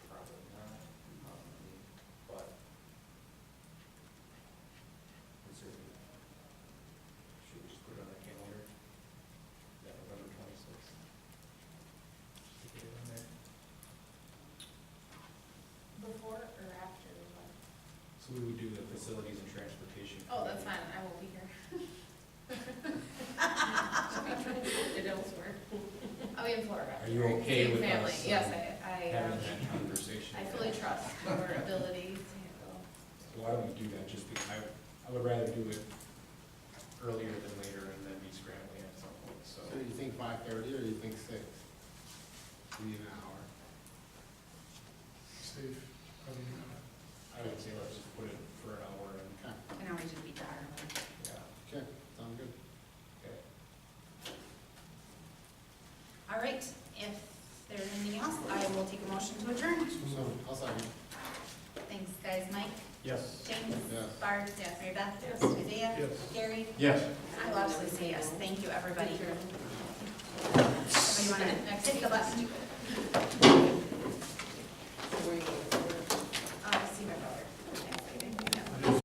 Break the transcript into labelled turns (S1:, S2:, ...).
S1: we would do the facilities and transportation.
S2: Oh, that's fine, I won't be here. I'll be elsewhere. I'll be in Florida.
S1: Are you okay
S2: Seeing
S1: with
S2: family.
S1: us, uh,
S2: Yes, I, I, um,
S1: Having that conversation.
S2: I fully trust your ability to
S1: Why don't we do that, just because I, I would rather do it earlier than later and then be scrambling at some point, so.
S3: So you think five thirty or you think six? We need an hour.
S4: Steve, how do you know?
S1: I would say let's just put it for an hour and,
S3: Okay,
S2: handle. An hour should be dire.
S1: yeah,
S3: okay, sound good.
S1: okay.
S2: All right, if there's anything else, I will take a motion to adjourn.
S3: So, I'll second.
S2: Thanks, guys. Mike,
S1: Yes.
S2: James,
S3: Yes.
S2: Barb, Mary Beth, Isaiah,
S4: Yes.
S2: Gary.
S1: Yes.
S2: I will absolutely say yes. Thank you, everybody. Somebody want to hit the button? Uh,